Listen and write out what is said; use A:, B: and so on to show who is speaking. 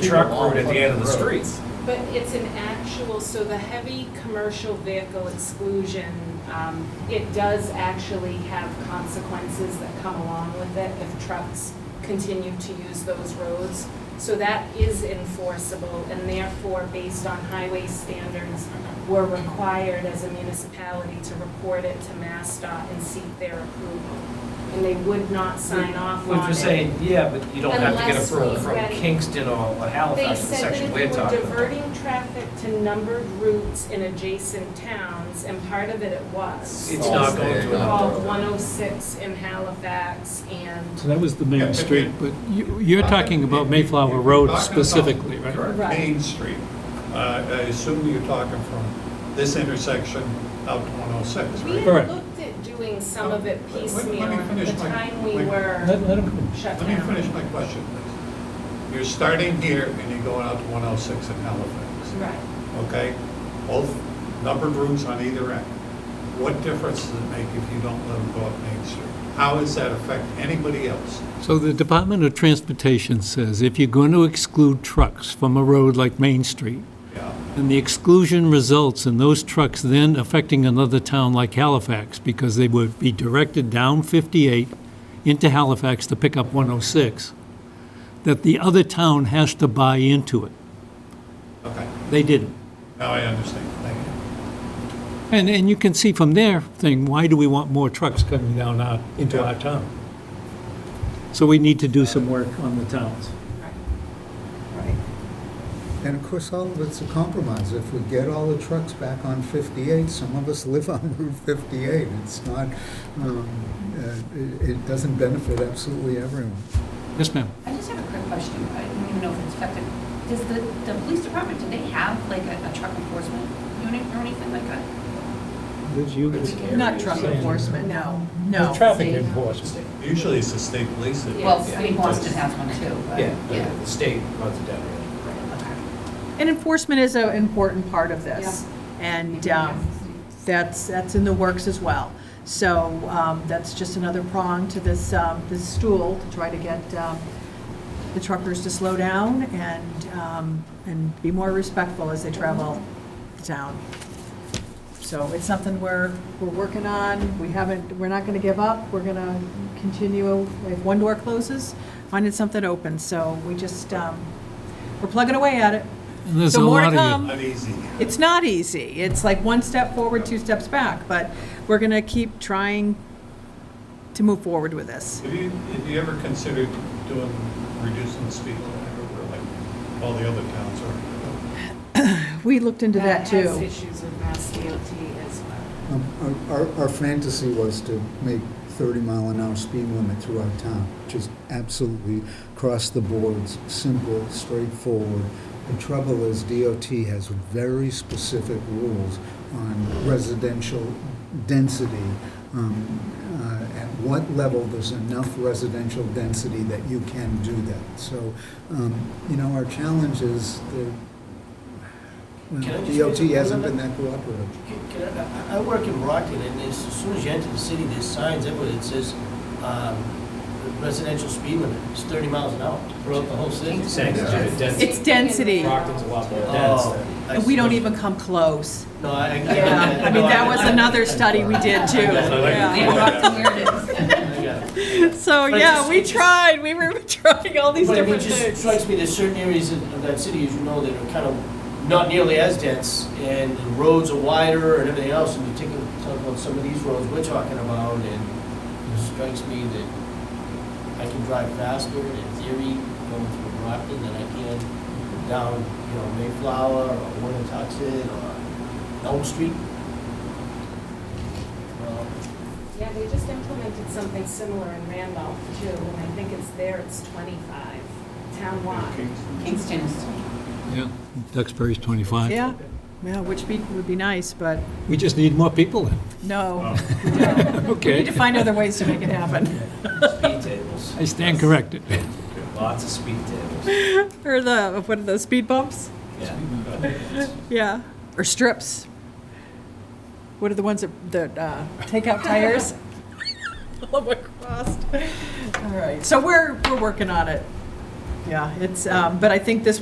A: truck route at the end of the street.
B: But it's an actual, so the heavy commercial vehicle exclusion, um, it does actually have consequences that come along with it if trucks continue to use those roads. So that is enforceable and therefore, based on highway standards, we're required as a municipality to report it to MassDOT and seek their approval. And they would not sign off on it.
C: Which was saying, yeah, but you don't have to get
B: Unless
C: approval
B: we
C: from
B: read it.
C: Kingston or
B: They
C: Halifax, the
B: said that
C: section
B: if
C: we're
B: you were
C: talking about.
B: diverting traffic to numbered routes in adjacent towns, and part of it it was.
C: Oh, It's not going to.
B: Called 106 in Halifax and,
D: So that was the main street, but you- you're talking about Mayflower Road specifically, right?
E: Correct,
B: Right.
E: Main Street. Uh, I assume you're talking from this intersection out to 106,
B: we
E: right?
B: had
D: Correct.
B: looked at doing some of it
E: Let- let- let me
B: piecemeal, and the
E: finish my-
B: time we
E: my-
B: were
D: Let let him,
B: shut
E: Let me finish
B: down.
E: my question, please. You're starting here and you're going out to 106 in Halifax,
B: Right.
E: okay? Both numbered rooms on either end. What difference does it make if you don't let them go up Main Street? How does that affect anybody else?
D: so the Department of Transportation says if you're going to exclude trucks from a road like Main Street,
E: Yeah,
D: and the exclusion results in those trucks then affecting another town like Halifax, because they would be directed down 58 into Halifax to pick up 106, that the other town has to buy into it.
E: okay,
D: They didn't.
E: now I understand, thank you.
D: And, and you can see from their thing, why do we want more trucks coming down our, into our town? So we need to do some work on the towns.
F: And of course, all of it's a compromise. If we get all the trucks back on 58, some of us live on Route 58. It's not, um, uh, it it doesn't benefit absolutely everyone.
D: Yes, ma'am.
G: I just have a quick question. I don't even know if it's effective. Does the, the police department, do they have like a a truck enforcement unit or anything like that?
D: Liz, you-
H: Not truck enforcement, no, no.
D: Traffic enforcement.
E: Usually it's the state police that.
G: Well, I mean, Boston has one too, but.
C: Yeah, the- the state runs it down.
H: And enforcement is an important part of this. And um, that's, that's in the works as well. So um, that's just another prong to this, um, this stool to try to get um, the truckers to slow down and, um, and be more respectful as they travel the town. So it's something we're, we're working on. We haven't, we're not going to give up. We're going to continue. If one door closes, finding something open. So we just, um, we're plugging away at it.
D: And there's
H: So
D: a
H: more to
D: lot of you.
H: come.
E: Not easy.
H: It's not easy. It's like one step forward, two steps back, but we're going to keep trying to move forward with this.
E: Have you, have you ever considered doing, reducing the speed limit over like all the other towns are?
H: We looked into that
B: has
H: too.
B: issues with Mass DOT as well.
F: Um, our- Our our fantasy was to make 30 mile an hour speed limit throughout town, just absolutely cross the boards, simple, straightforward. The trouble is DOT has very specific rules on residential density, um, uh, at what level there's enough residential density that you can do that. So, um, you know, our challenge is that uh,
I: Can I
F: well,
I: just
F: DOT
I: raise a
F: hasn't been
I: comment?
F: that cooperative.
I: Can I- I I work in Brockton, and as as soon as you enter the city, there's signs everywhere that says um, residential speed limit is 30 miles an hour throughout the whole city.
C: Saying it's just dense.
H: It's density.
C: Brockton's a lot more dense
I: Oh,
C: than-
I: I
H: And we don't
I: see.
H: even come close.
I: No, I. I-
H: Yeah, I mean, that was
I: I-
H: another study we did too.
G: Yeah,
H: Yeah.
G: Brockton, here it is.
I: I got it.
H: So,
I: But it
H: yeah,
I: just-
H: we
I: it just-
H: tried. We were trying all these
I: But I mean, it
H: different
I: just
H: things.
I: strikes me, there's certain areas in- of that city, as you know, that are kind of not nearly as dense, and the roads are wider and everything else, and you take, a- talk about some of these roads we're talking about, and it strikes me that I can drive faster in theory going through Brockton than I can down, you know, Mayflower or Winatuxin or Elm Street. Well,
B: Yeah, they just implemented something similar in Randolph too, and I think it's there, it's 25 townwide.
G: Kingston is.
D: Yeah, Duxbury's 25.
H: Yeah, yeah, which be- would be nice, but
D: We just need more people then.
H: no. We need
D: Okay,
H: to find other ways to make it happen.
C: Speed tables.
D: I stand corrected.
C: Lots of speed tables.
H: Or the, what are those, speed bumps?
C: Yeah.
H: Yeah, or strips. What are the ones that, that uh, take out tires? Love what crossed. All right, so we're, we're working on it. Yeah, it's, um, but I think this